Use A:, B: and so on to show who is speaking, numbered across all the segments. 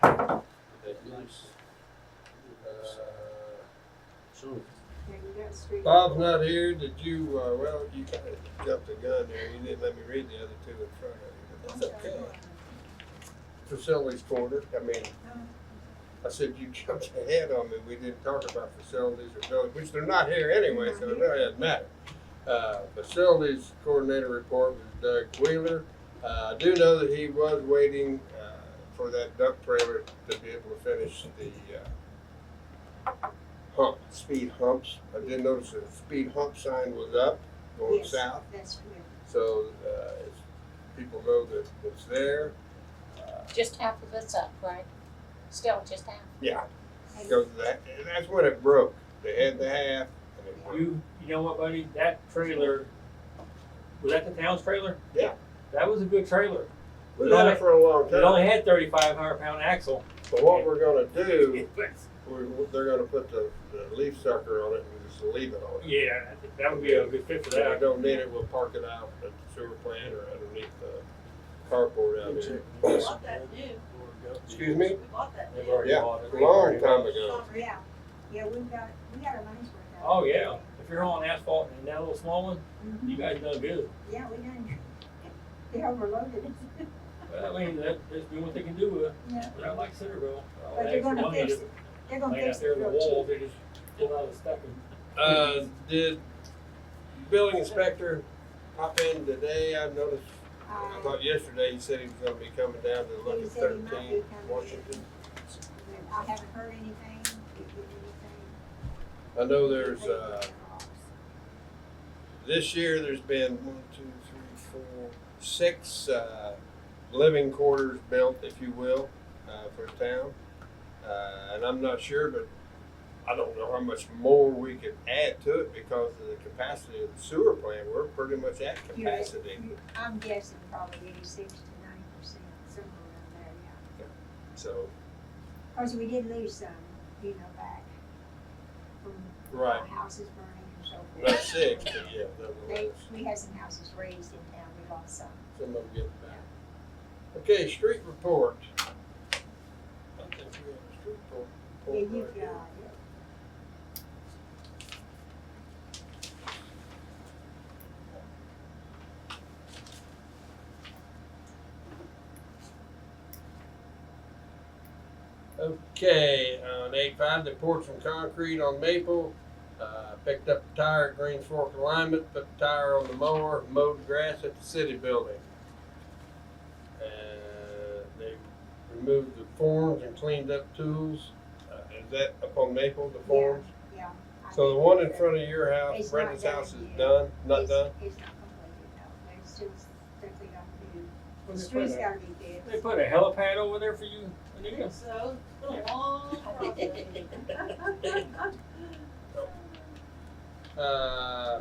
A: That is, uh,
B: So,
C: Yeah, you got street.
A: Bob's not here, did you, uh, well, you kinda jumped the gun there, you didn't let me read the other two in front of you, but that's okay. Facilities corner, I mean, I said you jumped ahead on me, we didn't talk about facilities or buildings, which they're not here anyway, so it really doesn't matter. Uh, facilities coordinator report was Doug Wheeler, uh, I do know that he was waiting, uh, for that dump trailer to be able to finish the, uh, hump, speed humps. I did notice the speed hump sign was up going
C: Yes.
A: south,
C: That's correct.
A: so uh, it's, people know that it's there. Uh,
D: Just half of it's up, right? Still just half.
A: yeah,
C: And-
A: because that and that's when it broke. They had the half, and it broke.
B: you, you know what, buddy, that trailer, was that the town's trailer?
A: Yeah.
B: That was a good trailer.
A: we had it for a long
B: It only
A: time.
B: had thirty-five hundred pound axle.
A: So what we're gonna do,
B: It was-
A: we're, they're gonna put the, the leaf sucker on it and just leave it on it.
B: Yeah, I think that would be a good fit for
A: If I
B: that.
A: don't need it, we'll park it out at the sewer plant or underneath the carport out here.
E: We bought that new,
A: Excuse me?
E: we bought that
B: They've
E: new.
B: already
A: Yeah,
B: bought it.
A: a long time ago.
E: Summer.
C: Yeah, yeah, we've got, we got our money's worth out.
B: Oh, yeah, if you're on asphalt and that little small one, you guys done good.
C: Mm-hmm. Yeah, we done, they overloaded.
B: Well, I mean, that, that's been what they can do with it,
C: Yeah,
B: but I like Centerville. all
C: But
B: the
C: they're
B: extra
C: gonna
B: money
C: fix
B: that
C: it, they're gonna
B: They
C: fix it
B: got there in the
C: real
B: wall,
C: cheap.
B: they just pulled out the stuff and.
A: Uh, did building inspector pop in today? I noticed, I
C: Uh,
A: thought yesterday he said he was gonna be coming down to look
C: He
A: at
C: said he might be
A: thirteen
C: coming.
A: Washington.
C: I haven't heard anything, did you get anything?
A: I know there's, uh, this year there's been one, two, three, four, six, uh, living quarters built, if you will, uh, for town. Uh, and I'm not sure, but I don't know how much more we could add to it because of the capacity of the sewer plant. We're pretty much at
C: You're-
A: capacity.
C: you- I'm guessing probably eighty-six to ninety percent, somewhere around there, yeah.
A: So,
C: Of course, we did lose some, you know, back from
A: right.
C: houses burning and so forth.
A: Not six, but yeah,
C: They,
A: nonetheless,
C: we had some houses raised in town, we lost some.
A: some of them get back. Okay, street report. I think we have a street report.
C: Yeah,
A: report
C: you've
A: right here.
C: got it.
A: Okay, uh, on eight five, they poured some concrete on Maple, uh, picked up a tire at Greens Fork Alignment, put the tire on the mower, mowed grass at the city building. Uh, they removed the forms and cleaned up tools. Uh, is that up on Maple, the forms?
C: Yeah. I
A: So the
C: think
A: one in
C: that's-
A: front of your house,
C: It's
A: Brenda's
C: not done
A: house is
C: yet.
A: done, not
C: it's-
A: done?
C: It's not completed, no, there's still strictly got to do,
B: Well,
C: the
B: they
C: street's
B: put a-
C: gotta be fixed.
B: They put a helipad over there for you, Anita?
E: So, it's been a long process.
A: Uh,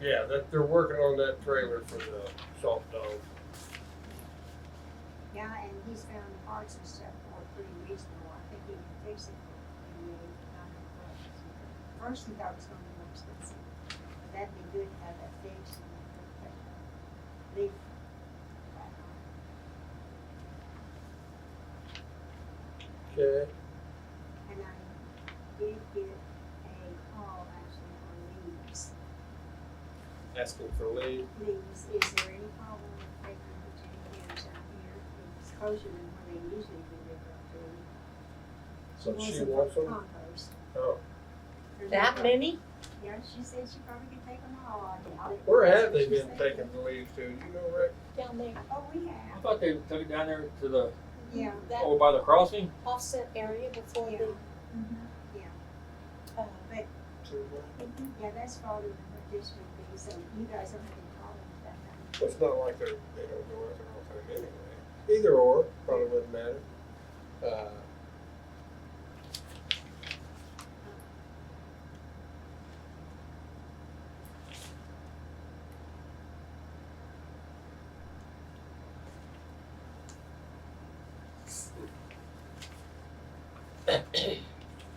A: Yeah, that, they're working on that trailer for the soft dog.
C: Yeah, and he's found parts and stuff for it pretty reasonable, I think he can fix it for maybe nine hundred bucks. First he thought it was gonna be more expensive, but that'd be good to have that fixed and then put that leaf back on.
A: Okay.
C: And I did get a call actually on leaves.
A: Asking for leave.
C: Leaves, is there any problem with taking the ten years out here? It's closer than where they usually deliver food.
A: So she
C: it for
A: wants them?
C: Compost.
A: Oh.
C: There's
D: That
C: no-
D: many?
C: Yeah, she said she probably could take them all. I doubt it.
A: Where have
C: That's
A: they
C: what she
A: been
C: said.
A: taking the leaves to? You know, Rick?
D: Down there,
C: Oh, we
B: I
C: have,
B: thought they took it down there to the,
C: yeah.
D: that
B: over by the crossing.
D: offset area before the, uh,
C: Yeah, that's farther than what this would be, so you guys don't have any problem with that.
A: It's not like they're, they don't go out there all the time anyway. Either or, probably wouldn't matter. Uh,